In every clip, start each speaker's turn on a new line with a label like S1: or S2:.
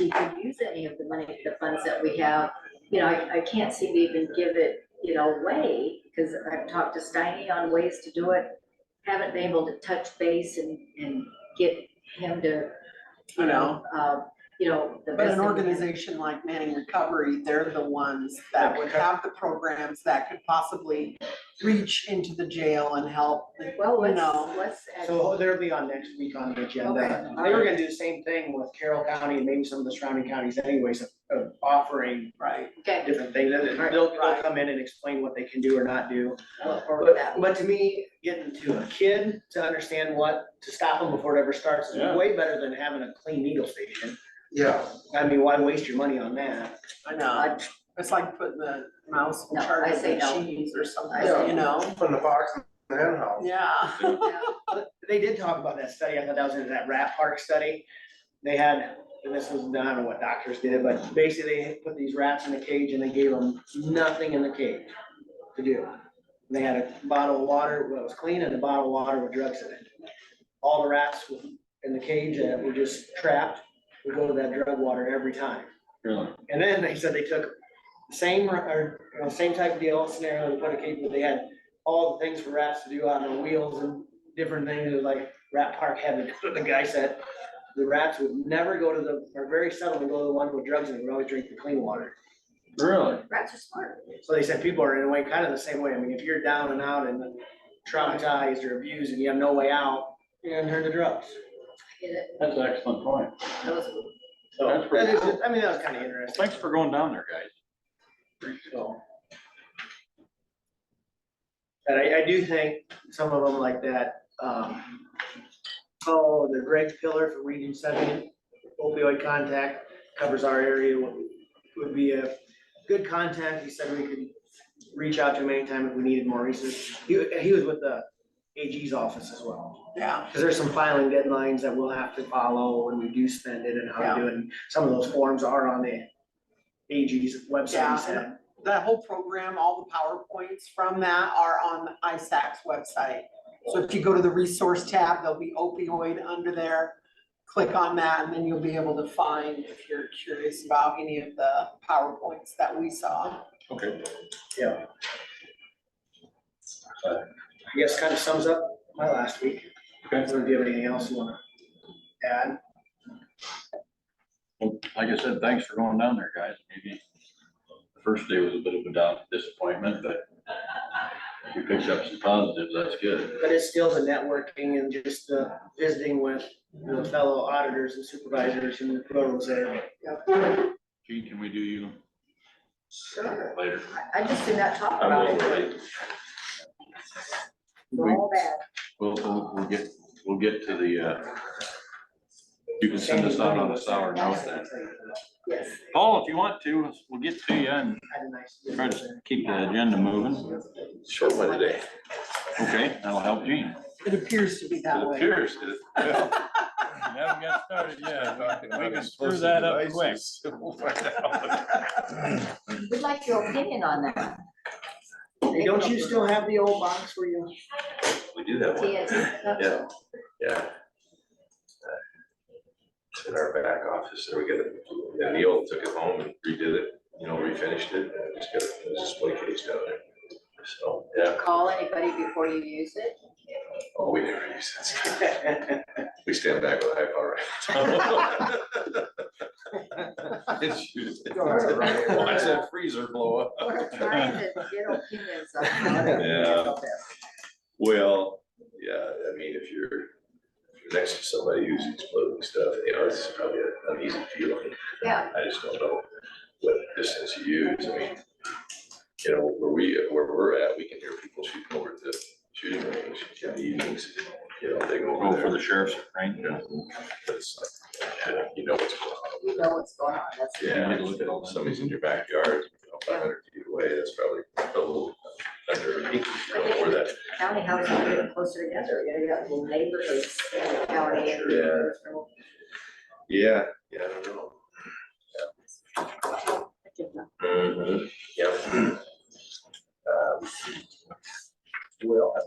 S1: we could use any of the money, the funds that we have. You know, I, I can't seem to even give it, you know, away, because I've talked to Steiny on ways to do it. Haven't been able to touch base and, and get him to, you know, uh, you know, the
S2: But
S1: best.
S2: an
S1: that we can.
S2: organization like Manning Recovery, they're the ones that would have the programs that could possibly reach into the jail and help,
S1: Well,
S2: you
S1: let's,
S2: know.
S1: let's.
S3: So they'll be on next week on the agenda.
S1: Okay.
S3: They were gonna do the same thing with Carroll County and maybe some of the surrounding counties anyways of, of offering
S2: Right.
S1: Okay,
S3: different things. And They'll, they'll come in and explain what they can do or not do.
S1: I'll look forward to that.
S3: But, but to me, getting to a kid to understand what, to stop them before it ever starts is
S4: Yeah.
S3: way better than having a clean needle station.
S5: Yeah,
S3: I mean, why waste your money on that?
S2: I know, it's like putting the mouse in
S1: No,
S2: charge
S1: I
S2: of
S1: say
S2: the
S1: no.
S2: cheese or something,
S5: Yeah.
S2: you know?
S5: from the fox and the hen house.
S2: Yeah.
S1: Yeah.
S3: They did talk about that study. I thought that was in that rat park study. They had, and this was, I don't know what doctors did, but basically they put these rats in a cage and they gave them nothing in the cage to do. They had a bottle of water that was clean and a bottle of water with drugs in it. All the rats in the cage that were just trapped would go to that drug water every time.
S4: Really?
S3: And then they said they took the same, r- or, you know, same type of deal, scenario, they put a cage, but they had all the things for rats to do on the wheels and different things, it was like rat park heaven, the guy said. The rats would never go to the, or very seldom would go to the one with drugs and would always drink the clean water.
S4: Really?
S1: Rats are smart.
S3: So they said people are in a way kind of the same way, I mean, if you're down and out and traumatized or abused and you have no way out, you're gonna turn to drugs.
S1: Get it?
S4: That's an excellent point.
S1: Those are
S3: So,
S4: That's pretty
S3: that is,
S4: cool.
S3: I mean, that was kind of interesting.
S4: Thanks for going down there, guys.
S3: So. And I, I do think some of them like that, um, oh, the Greg Pillar for Region Seven opioid contact covers our area, would, would be a good contact, he said we could reach out to him anytime if we needed more research. He, he was with the AG's office as well.
S2: Yeah,
S3: Because there's some filing deadlines that we'll have to follow when we do spend it and how to do it. And Some of those forms are on the AG's website,
S2: Yeah.
S3: he said.
S2: that whole program, all the PowerPoints from that are on the ISAC's website. So if you go to the resource tab, there'll be opioid under there. Click on that and then you'll be able to find if you're curious about any of the PowerPoints that we saw.
S4: Okay.
S3: Yeah. Uh, I guess kind of sums up my last week.
S4: Okay.
S3: If you have anything else you wanna add,
S4: Well, Like I said, thanks for going down there, guys. Maybe the first day was a bit of a down disappointment, but you picked up some positives. That's good.
S3: but it's still the networking and just the visiting with the fellow auditors and supervisors and whoever's there.
S4: Gene, can we do you
S1: Sure.
S4: later?
S1: I, I just did not talk
S4: I'm a
S1: about
S4: little
S1: it.
S4: late.
S1: We're
S4: We-
S1: all bad.
S4: We'll, we'll, we'll get, we'll get to the, uh, you can send us out on a sour note then.
S1: Yes.
S4: Paul, if you want to, we'll get to you and
S3: Had a nice. visit
S4: try
S3: there.
S4: to keep the agenda moving.
S6: Short one today.
S4: Okay, that'll help Gene.
S2: It appears to be that
S6: It
S2: way.
S6: appears to.
S4: We haven't got started
S6: We We'll find out.
S1: We'd like your opinion on that.
S3: Hey, Don't you still have the old box where you?
S6: We do have one,
S1: TNT stuff?
S6: Yeah. yeah. It's in our back office, and we got it, and Neil took it home and redid it, you know, refinished it, and just got a display case down there. So, yeah,
S1: Call anybody before you use it?
S6: oh, we never use that, we stand back with high power. It's used. Watch that freezer blow up.
S1: We're trying to get opinions on how to
S6: Yeah.
S1: handle this.
S6: Well, yeah, I mean, if you're, if you're next to somebody who's exploding stuff, you know, it's probably an easy feeling.
S1: Yeah.
S6: I just don't know what distance you use, I mean, you know, where we, where we're at, we can hear people shooting over at the shooting range in the evenings, you know, they go
S4: Go Oh, for
S6: over
S4: the
S6: there.
S4: sheriff's range.
S6: You know, but it's like, You know what's going on.
S1: We know what's going on. That's,
S6: Yeah,
S4: You look at all that.
S6: somebody's in your backyard, you know, five hundred feet away, that's probably a little under, you know, where that
S1: county houses are getting closer together. You know, you got little neighborhoods, in the county and.
S6: Yeah. Yeah, yeah, I don't know. Mhm, Yeah. Um, Well, I'm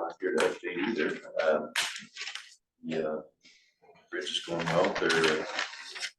S6: not here to update either. Um, Yeah. Bridge is going well. They're, uh,